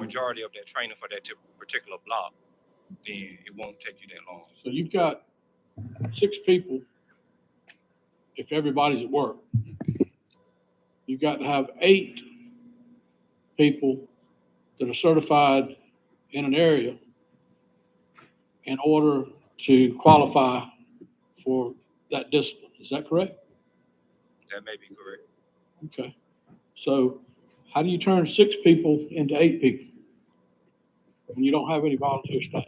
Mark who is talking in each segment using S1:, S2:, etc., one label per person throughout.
S1: majority of that training for that ti- particular block, then it won't take you that long.
S2: So you've got six people, if everybody's at work. You've got to have eight people that are certified in an area in order to qualify for that discipline. Is that correct?
S1: That may be correct.
S2: Okay. So how do you turn six people into eight people? When you don't have any volunteer staff?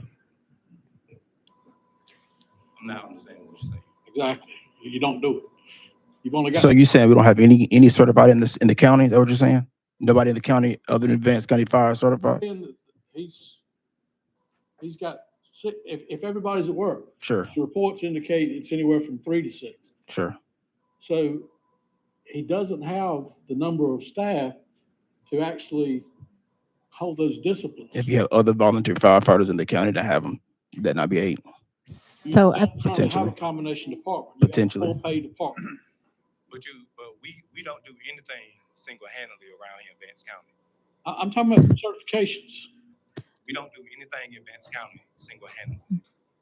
S1: I'm not understanding what you're saying.
S2: Exactly. You don't do it. You've only got.
S3: So you saying we don't have any, any certified in this, in the county, is that what you're saying? Nobody in the county other than Vance County Fire is certified?
S2: saying that He's, he's got, si- if, if everybody's at work,
S3: Sure,
S2: the reports indicate it's anywhere from three to six.
S3: sure.
S2: So he doesn't have the number of staff to actually hold those disciplines.
S3: If you have other volunteer firefighters in the county that have them, that not be eight.
S2: You
S4: So uh,
S2: don't
S4: I,
S2: currently have a
S3: Potentially.
S2: Combination department. You have a
S3: Potentially.
S2: Full-paid department.
S1: But you, but we, we don't do anything single-handedly around here in Vance County.
S2: I, I'm talking about certifications.
S1: We don't do anything in Vance County single-handedly.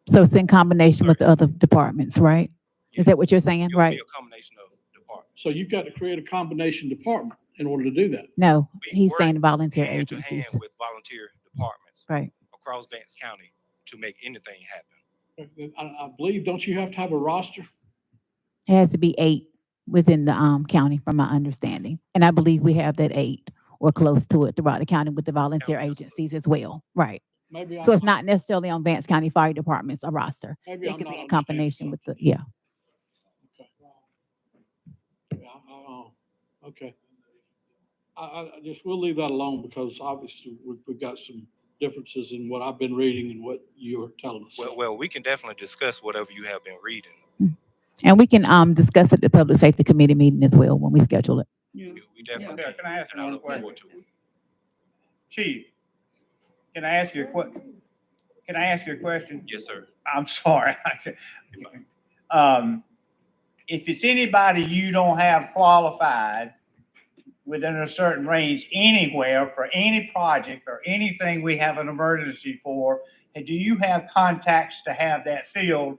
S4: so it's in combination with the other departments, right? Is that what you're saying?
S1: It'll
S4: Right?
S1: be a combination of departments.
S2: So you've got to create a combination department in order to do that.
S4: No,
S1: We
S4: he's
S1: work
S4: saying volunteer
S1: Hand to hand
S4: agencies.
S1: with volunteer departments
S4: Right.
S1: across Vance County to make anything happen.
S2: I, I believe, don't you have to have a roster?
S4: It has to be eight within the, um, county from my understanding. And I believe we have that eight or close to it throughout the county with the volunteer
S1: absolutely.
S4: agencies as well. Right.
S2: Maybe.
S4: So
S2: I'm
S4: it's not necessarily on Vance County Fire Department's a roster.
S2: maybe
S4: It
S2: I'm
S4: could
S2: not
S4: be in
S2: understanding
S4: combination with the, yeah.
S2: something. Okay. Yeah, I- I- oh, Okay. I, I, I just, we'll leave that alone because obviously we've, we've got some differences in what I've been reading and what you're telling us.
S1: Well, well, we can definitely discuss whatever you have been reading.
S4: And we can, um, discuss it at the Public Safety Committee meeting as well when we schedule it.
S5: Yeah.
S1: We we definitely,
S5: Okay,
S1: can,
S5: can I ask
S1: and I
S5: you one
S1: look forward
S5: question?
S1: to it.
S5: Chief, can I ask you a que, can I ask you a question?
S1: Yes, sir.
S5: I'm sorry. Um, if it's anybody you don't have qualified within a certain range anywhere for any project or anything we have an emergency for, and do you have contacts to have that filled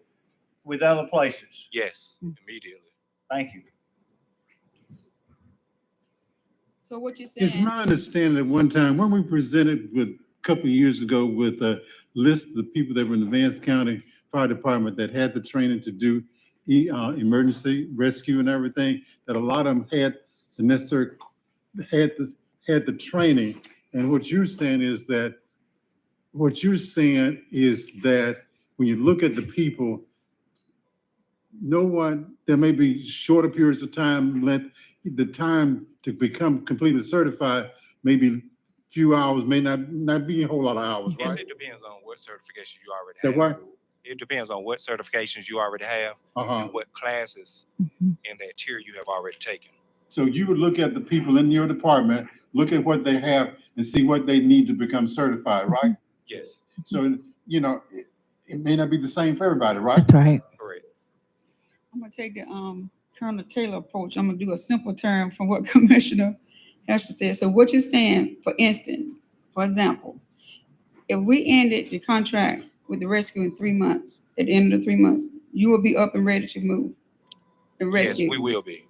S5: with other places?
S1: Yes,
S4: Mm.
S1: immediately.
S5: Thank you.
S6: So what you
S7: It's
S6: saying,
S7: my understanding that one time, when we presented with, a couple of years ago, with a list of the people that were in the Vance County Fire Department that had the training to do e- uh, emergency rescue and everything, that a lot of them had the necessary, had this, had the training. And what you're saying is that, what you're saying is that when you look at the people, no one, there may be shorter periods of time length the time to become completely certified, maybe few hours, may not, not be a whole lot of hours,
S1: Yes,
S7: right?
S1: it depends on what certifications you already
S7: That
S1: have.
S7: what?
S1: It depends on what certifications you already have
S7: Uh-huh.
S1: and what classes
S7: Mm-hmm.
S4: Mhm.
S1: in that tier you have already taken.
S7: So you would look at the people in your department, look at what they have and see what they need to become certified, right?
S1: Yes,
S7: So, you know, it, it may not be the same for everybody, right?
S4: That's right.
S1: correct.
S6: I'm gonna take the, um, Colonel Taylor approach, I'm gonna do a simple term from what Commissioner Hester said. So what you saying, for instance, for example, if we ended the contract with the rescue in three months, at the end of the three months, you will be up and ready to move the
S1: Yes, we
S6: rescue.
S1: will be.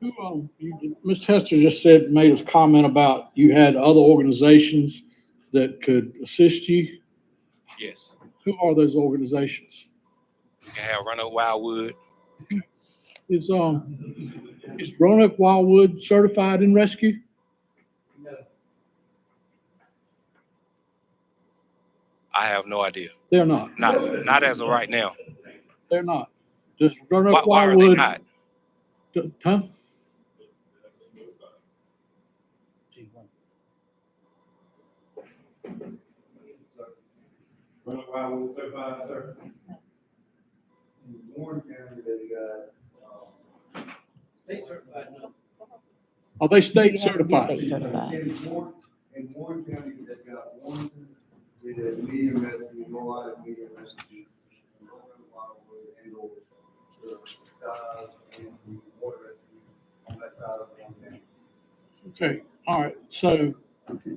S2: Who, um, you- Ms. Hester just said, made us comment about you had other organizations that could assist you.
S1: Yes.
S2: Who are those organizations?
S1: We can have Run Up Wildwood.
S2: Is, um, is Roanoke Wildwood certified in rescue?
S1: I have no idea.
S2: They're not.
S1: Not, not as of right now.
S2: They're not. Does
S1: Why,
S2: Roanoke
S1: why are they
S2: Wildwood?
S1: not?
S2: d- Huh?
S8: Run why we were certified, sir? In Warren County, they got, um, state certified, no.
S2: Are they state
S4: Yeah, they're
S2: certified?
S4: state certified.
S8: In Warren, in Warren County, they got one, with a medium rescue, no lot of medium rescue. no Wildwood, and over. The, uh, and the water rescue on that side of the county.
S2: Okay, all right. So
S6: Okay.